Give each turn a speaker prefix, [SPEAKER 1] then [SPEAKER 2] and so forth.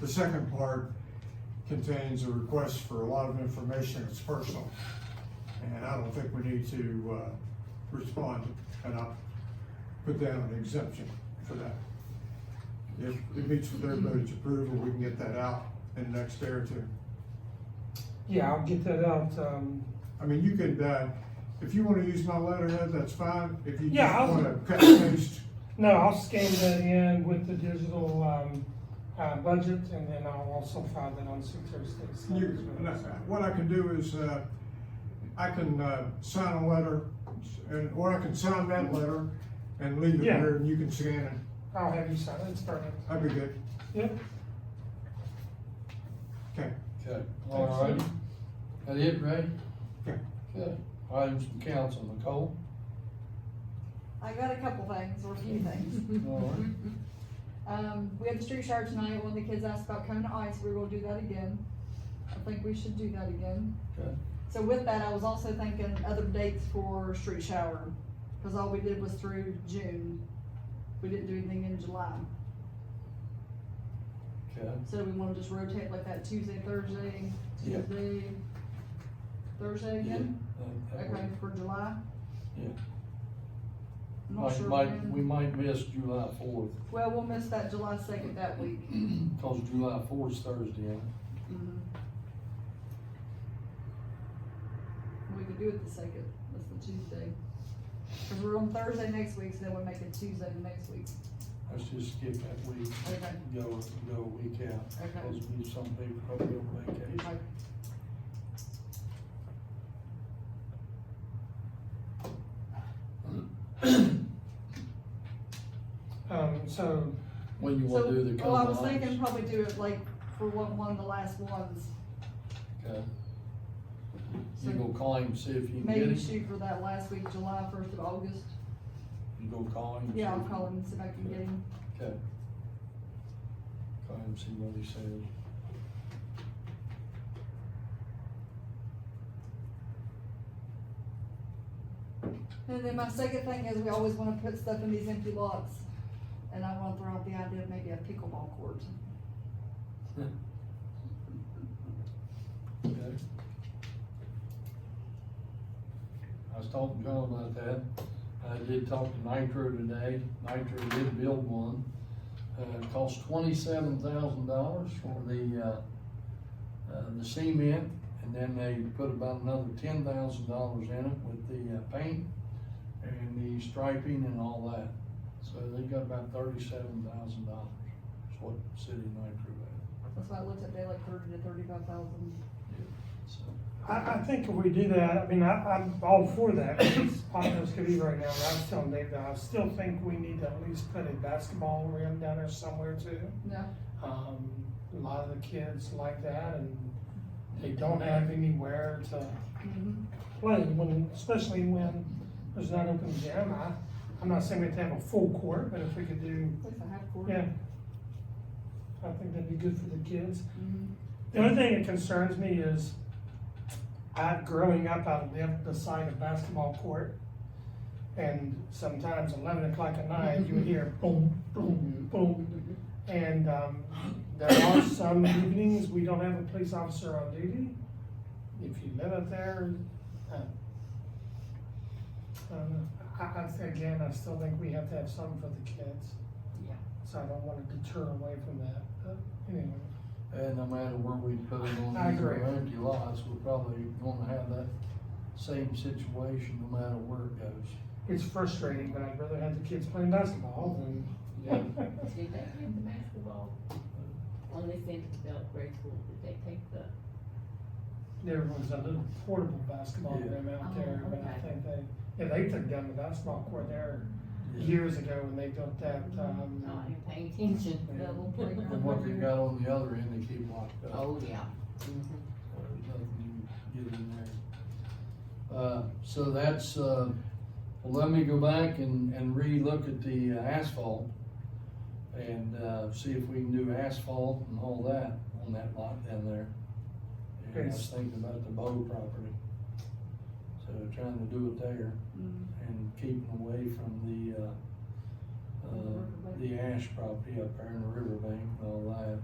[SPEAKER 1] The second part contains a request for a lot of information that's personal. And I don't think we need to, uh, respond, and I'll put down an exemption for that. If it meets with everybody's approval, we can get that out in the next day or two.
[SPEAKER 2] Yeah, I'll get that out, um,
[SPEAKER 1] I mean, you could, uh, if you wanna use my letterhead, that's fine, if you
[SPEAKER 2] Yeah,
[SPEAKER 1] just
[SPEAKER 2] I'll-
[SPEAKER 1] wanna cut and paste,
[SPEAKER 2] no, I'll scan that in with the digital, um, uh, budget, and then I'll also file that on Secretary of State's.
[SPEAKER 1] you, what I can do is, uh, I can, uh, sign a letter, and, or I can sign that letter and leave it
[SPEAKER 2] Yeah.
[SPEAKER 1] here, and you can scan it,
[SPEAKER 2] I'll have you sign it, it's perfect,
[SPEAKER 1] that'd be good,
[SPEAKER 2] yep.
[SPEAKER 1] okay.
[SPEAKER 3] Okay, all right. That it, Ray?
[SPEAKER 1] Yeah.
[SPEAKER 3] Okay, items from council, Nicole?
[SPEAKER 4] I got a couple things, or a few things.
[SPEAKER 3] All right.
[SPEAKER 4] Um, we had the street shower tonight, one of the kids asked about cone of ice, we will do that again. I think we should do that again.
[SPEAKER 3] Okay.
[SPEAKER 4] So with that, I was also thinking other dates for street shower, cause all we did was through June. We didn't do anything in July,
[SPEAKER 3] Okay,
[SPEAKER 4] so we wanna just rotate like that Tuesday, Thursday,
[SPEAKER 3] Yeah.
[SPEAKER 4] Tuesday, Thursday again?
[SPEAKER 3] that- that
[SPEAKER 4] Okay,
[SPEAKER 3] works.
[SPEAKER 4] for July?
[SPEAKER 3] Yeah.
[SPEAKER 4] I'm not
[SPEAKER 3] Might,
[SPEAKER 4] sure
[SPEAKER 3] might, we
[SPEAKER 4] when.
[SPEAKER 3] might miss July fourth,
[SPEAKER 4] Well, we'll miss that July second that week.
[SPEAKER 3] cause July fourth is Thursday, ain't it?
[SPEAKER 4] Mhm. We could do it the second, that's the Tuesday. Cause we're on Thursday next week, so then we'll make it Tuesday the next week.
[SPEAKER 3] let's just skip that week,
[SPEAKER 4] Okay,
[SPEAKER 3] go, go a week out,
[SPEAKER 4] okay.
[SPEAKER 3] cause we, some people probably on vacation.
[SPEAKER 4] okay.
[SPEAKER 2] Um, so,
[SPEAKER 3] When you wanna
[SPEAKER 4] So,
[SPEAKER 3] do the
[SPEAKER 4] Well, I
[SPEAKER 3] couple
[SPEAKER 4] was
[SPEAKER 3] of
[SPEAKER 4] thinking
[SPEAKER 3] items?
[SPEAKER 4] probably do it like for one, one of the last ones,
[SPEAKER 3] Okay, you
[SPEAKER 4] so
[SPEAKER 3] go call him, see if you can get
[SPEAKER 4] maybe
[SPEAKER 3] him,
[SPEAKER 4] shoot for that last week, July first of August.
[SPEAKER 3] you go call him.
[SPEAKER 4] Yeah, I'll
[SPEAKER 3] see if-
[SPEAKER 4] call him and see if I can get him.
[SPEAKER 3] Okay. Call him, see what he says.
[SPEAKER 4] And then my second thing is, we always wanna put stuff in these empty lots, and I wanna throw out the idea of maybe a pickleball court.
[SPEAKER 3] Okay. I was talking to John about that. I did talk to Nitro today. Nitro did build one. Uh, it cost twenty-seven thousand dollars for the, uh, uh, the cement. And then they put about another ten thousand dollars in it with the uh, paint and the striping and all that. So they got about thirty-seven thousand dollars. That's what City Nitro had,
[SPEAKER 4] That's why I looked at, they like thirty to thirty-five thousand.
[SPEAKER 3] so.
[SPEAKER 2] I, I think if we do that, I mean, I, I'm all for that, because hot as could be right now, and I was telling Dave that I still think we need to at least put a basketball rim down there somewhere too.
[SPEAKER 4] Yeah.
[SPEAKER 2] Um, a lot of the kids like that, and they don't have anywhere to
[SPEAKER 4] Mm-hmm.
[SPEAKER 2] play, when, especially when there's not open gym. I, I'm not saying we have to have a full court, but if we could do,
[SPEAKER 4] At least a half quarter.
[SPEAKER 2] yeah. I think that'd be good for the kids.
[SPEAKER 4] Mhm.
[SPEAKER 2] The only thing that concerns me is, I, growing up, I lived beside a basketball court. And sometimes eleven o'clock at night, you would hear boom, boom, boom. And, um, there are some evenings, we don't have a police officer on duty. If you live up there, uh, I don't know. I, I, say again, I still think we have to have some for the kids.
[SPEAKER 4] Yeah.
[SPEAKER 2] So I don't wanna deter away from that, but anyway.
[SPEAKER 3] And no matter where we put it on
[SPEAKER 2] I
[SPEAKER 3] these
[SPEAKER 2] agree.
[SPEAKER 3] empty lots, we're probably gonna have that same situation no matter where it goes.
[SPEAKER 2] It's frustrating, but I'd rather have the kids playing basketball than.
[SPEAKER 5] Did they take the basketball? On this end of the belt grade school, did they take the?
[SPEAKER 2] There was a little portable basketball
[SPEAKER 3] Yeah.
[SPEAKER 2] room out
[SPEAKER 5] Oh,
[SPEAKER 2] there, but I
[SPEAKER 5] okay.
[SPEAKER 2] think they, yeah, they took down the basketball court there
[SPEAKER 3] Yeah.
[SPEAKER 2] years ago when they built that,
[SPEAKER 5] Oh,
[SPEAKER 2] um,
[SPEAKER 5] didn't pay attention.
[SPEAKER 4] Double playground.
[SPEAKER 3] And what they got on the other end, they keep locked up.
[SPEAKER 5] Oh, yeah.
[SPEAKER 3] So there's nothing you can get in there. Uh, so that's, uh, well, let me go back and, and re-look at the uh, asphalt and, uh, see if we can do asphalt and all that on that lot down there. And I was
[SPEAKER 2] Yes.
[SPEAKER 3] thinking about the Bow property. So trying to do it there
[SPEAKER 4] Mhm.
[SPEAKER 3] and keeping away from the, uh, uh, the ash property up there in the riverbank and all that.